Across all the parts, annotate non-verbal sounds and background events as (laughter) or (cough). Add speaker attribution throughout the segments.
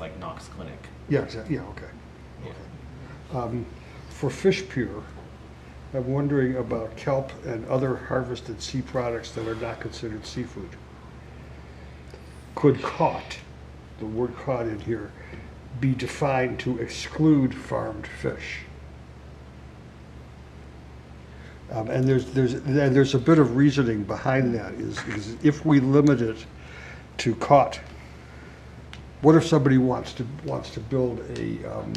Speaker 1: like Knox Clinic.
Speaker 2: Yeah, exactly, yeah, okay.
Speaker 1: Yeah.
Speaker 2: Um, For fish pure, I'm wondering about kelp and other harvested sea products that are not considered seafood. Could caught, the word caught in here, be defined to exclude farmed fish? Um, And there's, there's, and there's a bit of reasoning behind that, is, is if we limit it to caught, what if somebody wants to, wants to build a, um,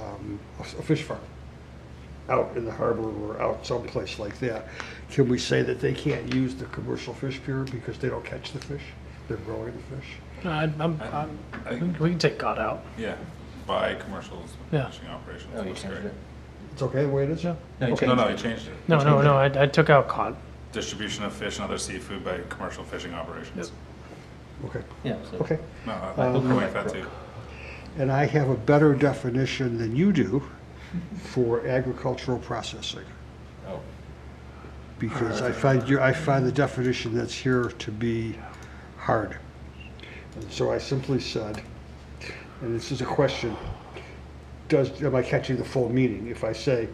Speaker 2: um, a s- a fish farm out in the harbor or out someplace like that, can we say that they can't use the commercial fish pier because they don't catch the fish? They're growing the fish?
Speaker 3: No, I- I'm, I'm, we can- we can take God out.
Speaker 4: Yeah, by commercials,
Speaker 3: Yeah.
Speaker 4: fishing operations,
Speaker 1: Oh, you
Speaker 4: looks
Speaker 1: changed
Speaker 4: great.
Speaker 1: it.
Speaker 2: It's okay the way it is?
Speaker 3: Yeah.
Speaker 1: No, you
Speaker 4: No,
Speaker 1: changed
Speaker 4: no, he
Speaker 1: it.
Speaker 4: changed it.
Speaker 3: No, no, no, I, I took out cod.
Speaker 4: Distribution of fish and other seafood by commercial fishing operations.
Speaker 2: Okay,
Speaker 1: Yeah, so-
Speaker 2: okay.
Speaker 4: No, I I
Speaker 2: Um,
Speaker 4: like that too.
Speaker 2: And I have a better definition than you do for agricultural processing.
Speaker 1: Oh,
Speaker 2: because I find your, I find the definition that's here to be hard. And so I simply said, and this is a question, does, am I catching the full meaning? If I say,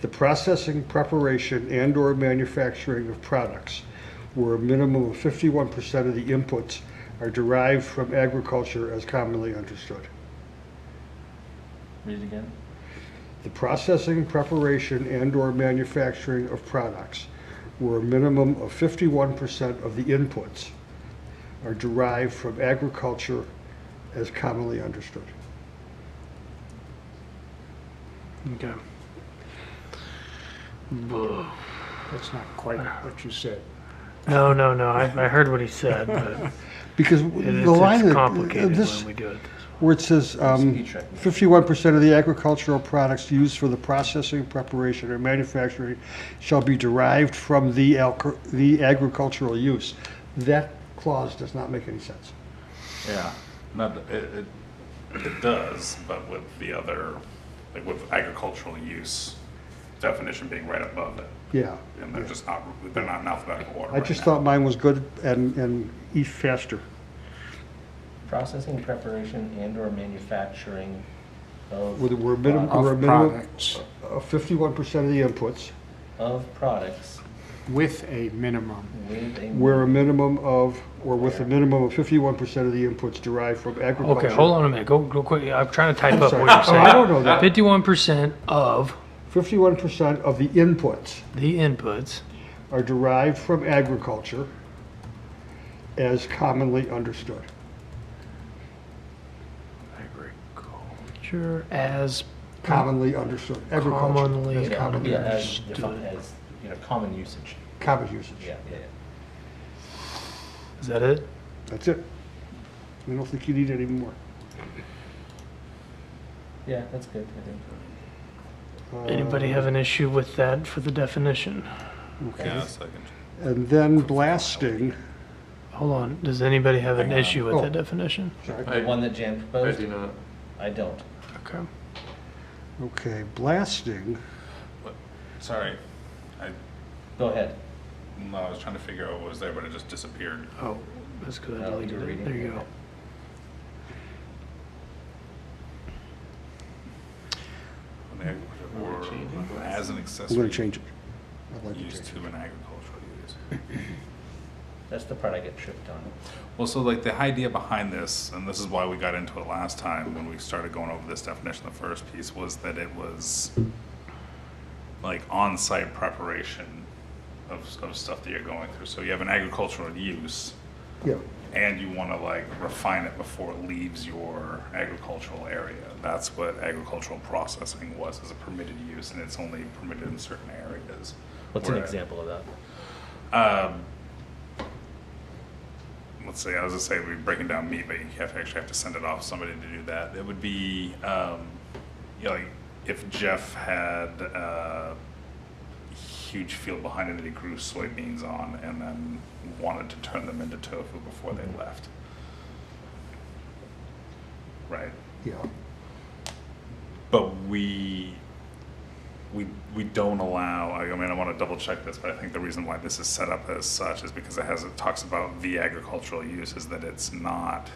Speaker 2: the processing, preparation, and/or manufacturing of products where a minimum of fifty-one percent of the inputs are derived from agriculture as commonly understood.
Speaker 1: read it again.
Speaker 2: The processing, preparation, and/or manufacturing of products where a minimum of 51% of the inputs are derived from agriculture as commonly understood.
Speaker 3: Okay.
Speaker 5: That's not quite what you said.
Speaker 3: No, no, no, I, I heard what he said, (laughs) but
Speaker 2: Because
Speaker 3: it
Speaker 2: the
Speaker 3: is
Speaker 2: line
Speaker 3: it's
Speaker 2: that-
Speaker 3: complicated
Speaker 2: uh, this,
Speaker 3: when we do it. this way.
Speaker 2: where it says um,
Speaker 1: Speed tracking.
Speaker 2: 51% of the agricultural products used for the processing, preparation, or manufacturing shall be derived from the alco- the agricultural use, that clause does not make any sense.
Speaker 4: Yeah, not, it, it, it does, but with the other, like with agricultural use definition being right above it.
Speaker 2: Yeah.
Speaker 4: And they're
Speaker 2: yeah.
Speaker 4: just not, they're not in alphabetical order
Speaker 2: I
Speaker 4: right
Speaker 2: just
Speaker 4: now.
Speaker 2: thought mine was good and, and eat faster.
Speaker 1: Processing, preparation, and/or manufacturing of,
Speaker 2: With, we're a minimum,
Speaker 5: Of
Speaker 2: we're a minimum
Speaker 5: products
Speaker 2: of fifty-one percent of the inputs.
Speaker 1: of products
Speaker 5: with a minimum.
Speaker 1: with a.
Speaker 2: We're a minimum of, or with a minimum of fifty-one percent of the inputs derived from agriculture.
Speaker 3: Okay, hold on a minute, go, go quick, I'm trying to type up
Speaker 2: sorry.
Speaker 3: what you're
Speaker 2: Oh, I don't
Speaker 3: saying.
Speaker 2: know that.
Speaker 3: Fifty-one percent of
Speaker 2: Fifty-one percent of the inputs
Speaker 3: the inputs
Speaker 2: are derived from agriculture as commonly understood.
Speaker 3: agriculture as
Speaker 2: Commonly understood, agriculture,
Speaker 3: commonly
Speaker 2: That's common
Speaker 1: Yeah, as,
Speaker 3: understood.
Speaker 1: defined as, you know, common usage.
Speaker 2: common usage.
Speaker 1: Yeah, yeah, yeah.
Speaker 3: Is that it?
Speaker 2: That's it. I don't think you need any more.
Speaker 1: Yeah, that's good, I think.
Speaker 2: Uh,
Speaker 3: Anybody have an issue with that for the definition?
Speaker 4: Yeah, second.
Speaker 2: And then blasting,
Speaker 3: Hold on, does anybody have an
Speaker 1: Hang on.
Speaker 3: issue with
Speaker 2: Oh.
Speaker 3: that definition?
Speaker 1: The one that Jan
Speaker 6: I
Speaker 1: proposed,
Speaker 6: do not.
Speaker 1: I don't.
Speaker 3: Okay.
Speaker 2: okay, blasting
Speaker 4: Sorry, I,
Speaker 1: Go ahead.
Speaker 4: no, I was trying to figure out what was there, but it just disappeared.
Speaker 3: Oh, that's good. I
Speaker 1: Oh,
Speaker 3: deleted
Speaker 1: you're
Speaker 3: it.
Speaker 1: reading.
Speaker 3: There you go.
Speaker 4: On the agriculture Or as an
Speaker 2: I'm gonna
Speaker 4: accessory
Speaker 2: change it. I'd like to
Speaker 4: use
Speaker 2: change
Speaker 4: to an agricultural use.
Speaker 1: (laughs) That's the part I get tripped on.
Speaker 4: Well, so like the idea behind this, and this is why we got into it last time when we started going over this definition, the first piece was that it was like on-site preparation of, of stuff that you're going through. So you have an agricultural use
Speaker 2: it. Yeah,
Speaker 4: and you want to like refine it before it leaves your agricultural area. That's what agricultural processing was, is a permitted use and it's only permitted in certain areas.
Speaker 1: What's an
Speaker 4: Where-
Speaker 1: example of that?
Speaker 4: um, let's say, I was gonna say we're breaking down meat, but you have to actually have to send it off to somebody to do that. It would be, um, you know, like if Jeff had uh, a huge field behind him that he grew soybeans on and then wanted to turn them into tofu before they left. Right?
Speaker 2: yeah.
Speaker 4: But we, we, we don't allow, I mean, I want to double check this, but I think the reason why this is set up as such is because it has, it talks about the agricultural use is that it's not